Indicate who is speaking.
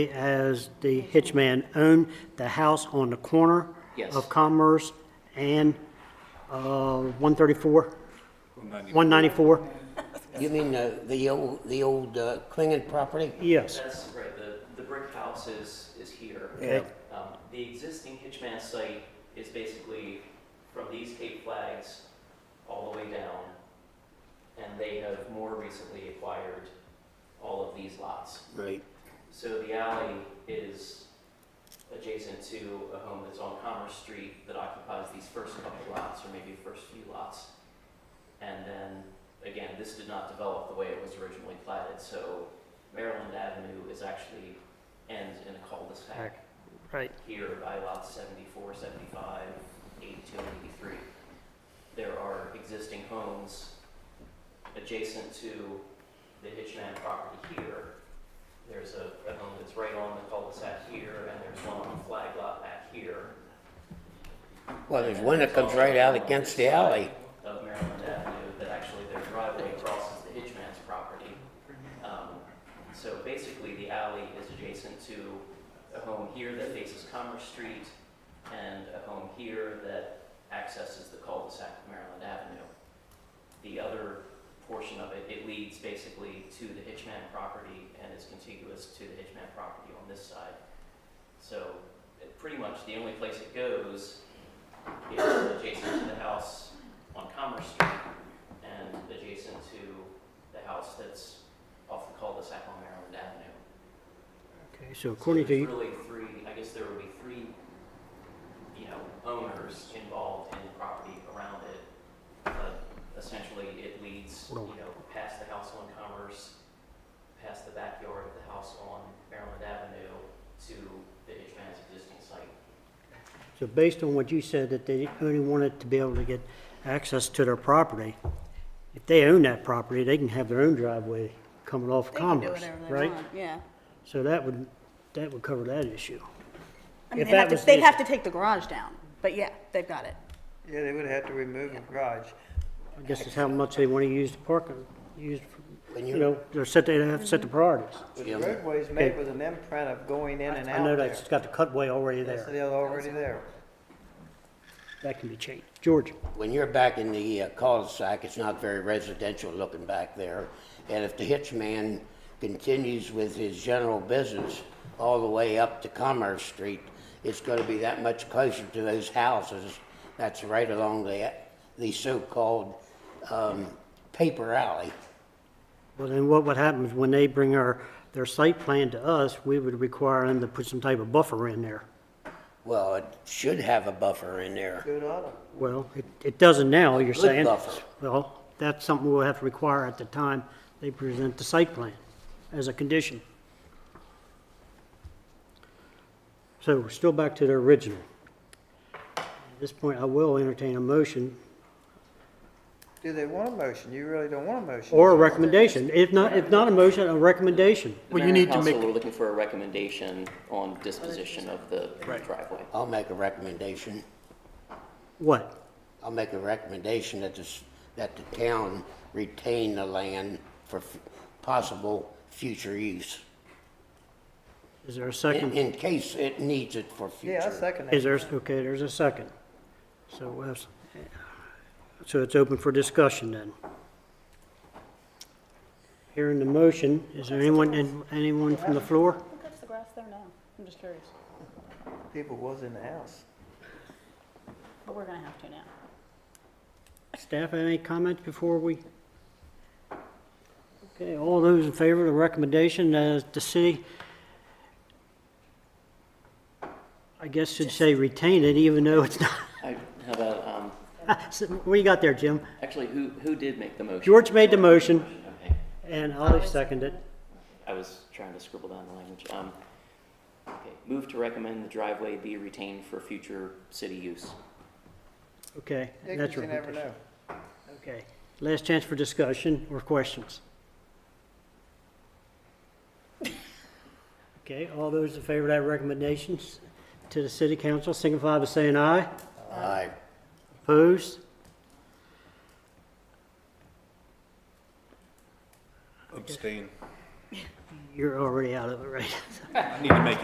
Speaker 1: as the hitchman owned the house on the corner
Speaker 2: Yes.
Speaker 1: of Commerce and uh, 134? 194?
Speaker 3: You mean the, the old, the old uh, Klingon property?
Speaker 1: Yes.
Speaker 2: That's right, the, the brick house is, is here.
Speaker 1: Okay.
Speaker 2: Um, The existing Hitchman site is basically from these Cape Flags all the way down, and they have more recently acquired all of these lots.
Speaker 3: Right.
Speaker 2: So the alley is adjacent to a home that's on Commerce Street that occupies these first couple lots, or maybe first few lots. And then, again, this did not develop the way it was originally platted, so Maryland Avenue is actually, ends in a cul-de-sac
Speaker 1: Right.
Speaker 2: here by lots 74, 75, 82, and 83. There are existing homes adjacent to the Hitchman property here. There's a, a home that's right on the cul-de-sac here, and there's one on the flag lot back here.
Speaker 3: Well, there's one that comes right out against the alley.
Speaker 2: Of Maryland Avenue, that actually their driveway crosses the Hitchman's property. Um, So basically, the alley is adjacent to a home here that faces Commerce Street and a home here that accesses the cul-de-sac of Maryland Avenue. The other portion of it, it leads basically to the Hitchman property and is contiguous to the Hitchman property on this side. So it- pretty much the only place it goes is adjacent to the house on Commerce Street and adjacent to the house that's off the cul-de-sac on Maryland Avenue.
Speaker 1: Okay, so according to,
Speaker 2: There's
Speaker 1: you-
Speaker 2: really three, I guess there would be three, you know, owners involved in the property around it. But essentially, it leads, you know, past the house on Commerce, past the backyard of the house on Maryland Avenue to the Hitchman's existing site.
Speaker 1: so based on what you said, that they only wanted to be able to get access to their property, if they own that property, they can have their own driveway coming off
Speaker 4: They can do
Speaker 1: Commerce,
Speaker 4: whatever they
Speaker 1: right?
Speaker 4: want, Yeah.
Speaker 1: So that would, that would cover that issue.
Speaker 4: I mean,
Speaker 1: If
Speaker 4: they
Speaker 1: that
Speaker 4: have to,
Speaker 1: was the
Speaker 4: they'd have
Speaker 1: issue.
Speaker 4: to take the garage down, but yeah, they've got it.
Speaker 5: Yeah, they would have to remove the garage.
Speaker 1: I guess it's how much they want to use the parking, use,
Speaker 3: When
Speaker 1: you
Speaker 3: you-
Speaker 1: know, they're set, they have to set the priorities.
Speaker 5: But the
Speaker 3: Jim.
Speaker 5: roadway's made with an imprint of going in and
Speaker 1: I
Speaker 5: out
Speaker 1: know
Speaker 5: there.
Speaker 1: that's got the cutway already
Speaker 5: That's
Speaker 1: there.
Speaker 5: the other already there.
Speaker 1: That can be changed. George,
Speaker 3: When you're back in the uh, cul-de-sac, it's not very residential looking back there. And if the hitchman continues with his general business all the way up to Commerce Street, it's gonna be that much closer to those houses that's right along the, the so-called, um, paper alley.
Speaker 1: well then what would happen is when they bring our, their site plan to us, we would require them to put some type of buffer in there.
Speaker 3: Well, it should have a buffer in there.
Speaker 5: Good auto.
Speaker 1: Well, it, it doesn't now, you're
Speaker 3: Good
Speaker 1: saying.
Speaker 3: buffer.
Speaker 1: Well, that's something we'll have to require at the time they present the site plan as a condition. So we're still back to the original. At this point, I will entertain a motion
Speaker 5: Do they want a motion? You really don't want a motion.
Speaker 1: or a recommendation. If not, if not a motion, a recommendation.
Speaker 2: Well, you need to make. We're looking for a recommendation on disposition of the driveway.
Speaker 3: I'll make a recommendation.
Speaker 1: What?
Speaker 3: I'll make a recommendation that this, that the town retain the land for f- possible future use.
Speaker 1: Is there a
Speaker 3: In,
Speaker 1: second?
Speaker 3: in case it needs it for future.
Speaker 5: Yeah, I second
Speaker 1: Is
Speaker 5: that.
Speaker 1: there, okay, there's a second. So, we'll have s- so it's open for discussion then. Hearing the motion, is there anyone, in- anyone from the floor?
Speaker 4: Who cuts the grass there now? I'm just curious,
Speaker 5: People was in the house.
Speaker 4: but we're gonna have to now.
Speaker 1: Staff, any comments before we? Okay, all those in favor of the recommendation as the city, I guess should say retain it even though it's not,
Speaker 2: I, how about, um,
Speaker 1: what you got there, Jim?
Speaker 2: actually, who, who did make the motion?
Speaker 1: George made the motion.
Speaker 2: Okay,
Speaker 1: And Ollie seconded.
Speaker 2: I was trying to scribble down the language. Um, okay, move to recommend the driveway be retained for future city use.
Speaker 1: Okay,
Speaker 5: Yeah, 'cause
Speaker 1: that's
Speaker 5: you never
Speaker 1: right.
Speaker 5: know.
Speaker 1: Okay. Last chance for discussion or questions. Okay, all those in favor of that recommendations to the city council, signify by saying aye.
Speaker 3: Aye.
Speaker 1: Opposed?
Speaker 6: Abstain.
Speaker 7: you're already out of it, right?
Speaker 1: I need to make